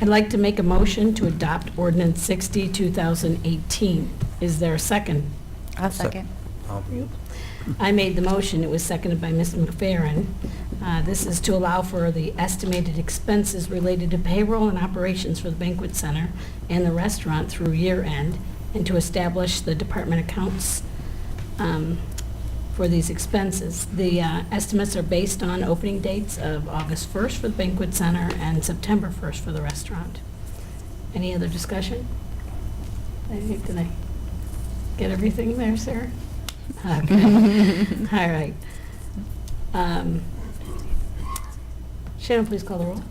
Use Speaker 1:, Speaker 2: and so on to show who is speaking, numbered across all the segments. Speaker 1: I'd like to make a motion to adopt ordinance 60, 2018. Is there a second?
Speaker 2: I'll
Speaker 3: Sec-
Speaker 2: second.
Speaker 3: Um,
Speaker 1: I made the motion, it was seconded by Ms. McFerrin. Uh, This is to allow for the estimated expenses related to payroll and operations for the banquet center and the restaurant through year end, and to establish the department accounts um, for these expenses. The uh, estimates are based on opening dates of August 1st for the banquet center and September 1st for the restaurant. Any other discussion? I think, did I get everything there, Sarah? Okay, all right. Um, Shannon, please call the roll.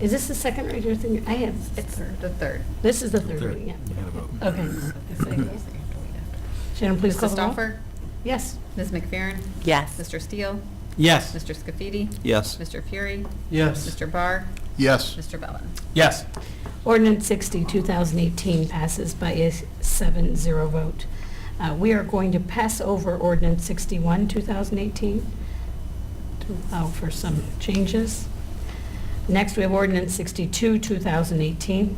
Speaker 1: Is this the second reading or thing? I have,
Speaker 4: It's the third.
Speaker 1: this is the third
Speaker 3: Third.
Speaker 1: reading, yeah.
Speaker 3: You gotta vote.
Speaker 1: Okay. Shannon, please
Speaker 4: Ms.
Speaker 1: call the roll.
Speaker 4: Stoffer?
Speaker 1: Yes.
Speaker 4: Ms. McFerrin?
Speaker 2: Yes.
Speaker 4: Mr. Steele?
Speaker 5: Yes.
Speaker 4: Mr. Scafidi?
Speaker 3: Yes.
Speaker 4: Mr. Fury?
Speaker 5: Yes.
Speaker 4: Mr. Barr?
Speaker 6: Yes.
Speaker 4: Mr. Bellin?
Speaker 5: Yes.
Speaker 1: Ordinance 60, 2018 passes by a 7-0 vote. Uh, We are going to pass over ordinance 61, 2018 to allow Oh, for some changes. Next, we have ordinance 62, 2018.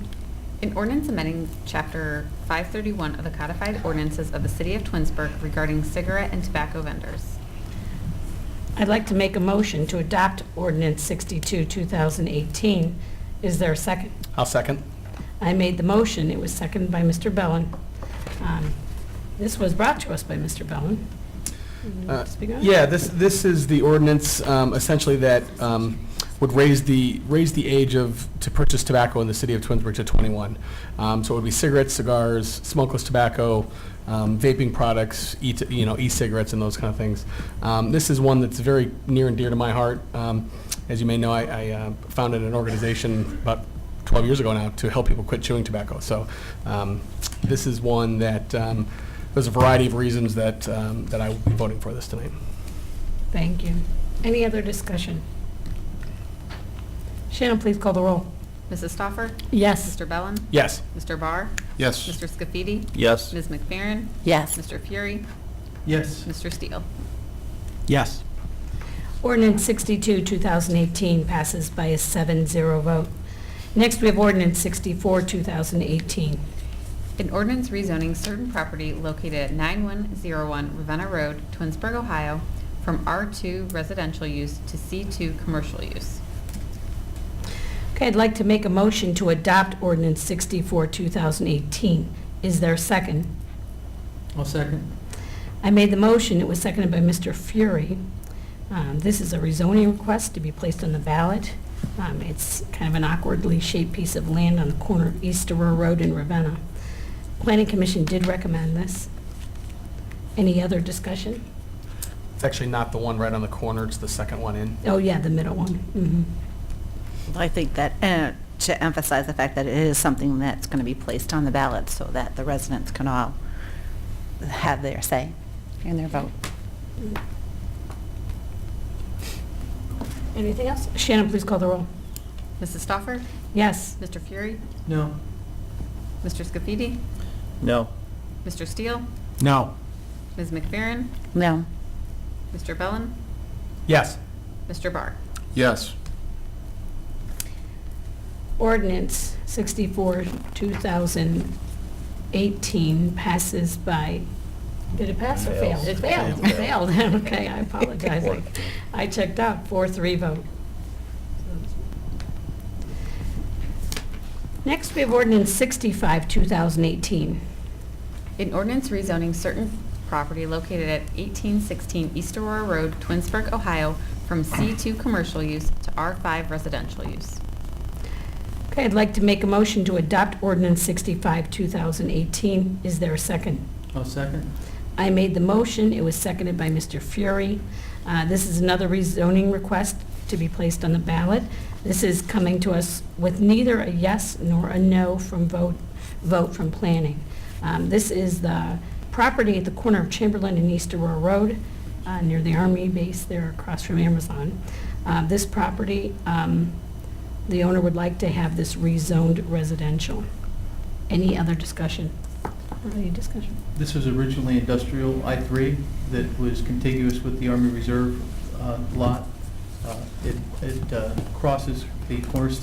Speaker 4: An ordinance amending Chapter 531 of the codified ordinances of the City of Twinsburg regarding cigarette and tobacco vendors.
Speaker 1: I'd like to make a motion to adopt ordinance 62, 2018. Is there a second?
Speaker 5: I'll second.
Speaker 1: I made the motion, it was seconded by Mr. Bellin. Um, This was brought to us by Mr. Bellin.
Speaker 5: Uh,
Speaker 1: Speak on it.
Speaker 5: Yeah, this, this is the ordinance um, essentially that um, would raise the, raise the age of, to purchase tobacco in the city of Twinsburg to 21. Um, So it would be cigarettes, cigars, smokeless tobacco, um, vaping products, e, you know, e-cigarettes and those kind of things. Um, This is one that's very near and dear to my heart. Um, As you may know, I, I uh, founded an organization about 12 years ago now to help people quit chewing tobacco. So um, this is one that, um, there's a variety of reasons that, um, that I will be voting for this tonight.
Speaker 1: Thank you. Any other discussion? Shannon, please call the roll.
Speaker 4: Mrs. Stoffer?
Speaker 1: Yes.
Speaker 4: Mr. Bellin?
Speaker 5: Yes.
Speaker 4: Mr. Barr?
Speaker 6: Yes.
Speaker 4: Mr. Scafidi?
Speaker 3: Yes.
Speaker 4: Ms. McFerrin?
Speaker 2: Yes.
Speaker 4: Mr. Fury?
Speaker 5: Yes.
Speaker 4: Mr. Steele?
Speaker 5: Yes.
Speaker 1: Ordinance 62, 2018 passes by a 7-0 vote. Next, we have ordinance 64, 2018.
Speaker 4: An ordinance rezoning certain property located at 9101 Ravenna Road, Twinsburg, Ohio, from R2 residential use to C2 commercial use.
Speaker 1: Okay, I'd like to make a motion to adopt ordinance 64, 2018. Is there a second?
Speaker 7: I'll second.
Speaker 1: I made the motion, it was seconded by Mr. Fury. Um, This is a rezoning request to be placed on the ballot. Um, It's kind of an awkwardly shaped piece of land on the corner of East Aurora Road in Ravenna. Planning Commission did recommend this. Any other discussion?
Speaker 5: It's actually not the one right on the corner, it's the second one in.
Speaker 1: Oh, yeah, the middle one. Mhm.
Speaker 2: I think that, uh, to emphasize the fact that it is something that's going to be placed on the ballot so that the residents can all have their say and their vote.
Speaker 1: Anything else? Shannon, please call the roll.
Speaker 4: Mrs. Stoffer?
Speaker 1: Yes.
Speaker 4: Mr. Fury?
Speaker 7: No.
Speaker 4: Mr. Scafidi?
Speaker 3: No.
Speaker 4: Mr. Steele?
Speaker 5: No.
Speaker 4: Ms. McFerrin?
Speaker 2: No.
Speaker 4: Mr. Bellin?
Speaker 5: Yes.
Speaker 4: Mr. Barr?
Speaker 6: Yes.
Speaker 1: Ordinance 64, 2018 passes by, did it pass or fail?
Speaker 3: Fails.
Speaker 1: It failed, it failed, okay, I apologize. I- I checked out, 4-3 vote. Next, we have ordinance 65, 2018.
Speaker 4: An ordinance rezoning certain property located at 1816 East Aurora Road, Twinsburg, Ohio, from C2 commercial use to R5 residential use.
Speaker 1: Okay, I'd like to make a motion to adopt ordinance 65, 2018. Is there a second?
Speaker 7: I'll second.
Speaker 1: I made the motion, it was seconded by Mr. Fury. Uh, This is another rezoning request to be placed on the ballot. This is coming to us with neither a yes nor a no from vote, vote from planning. Um, This is the property at the corner of Chamberlain and East Aurora Road, uh, near the Army base there across from Amazon. Uh, This property, um, the owner would like to have this rezoned residential. Any other discussion? Any discussion?
Speaker 7: This was originally industrial I-3 that was contiguous with the Army Reserve uh, lot. Uh, It it, uh, crosses the cornerstone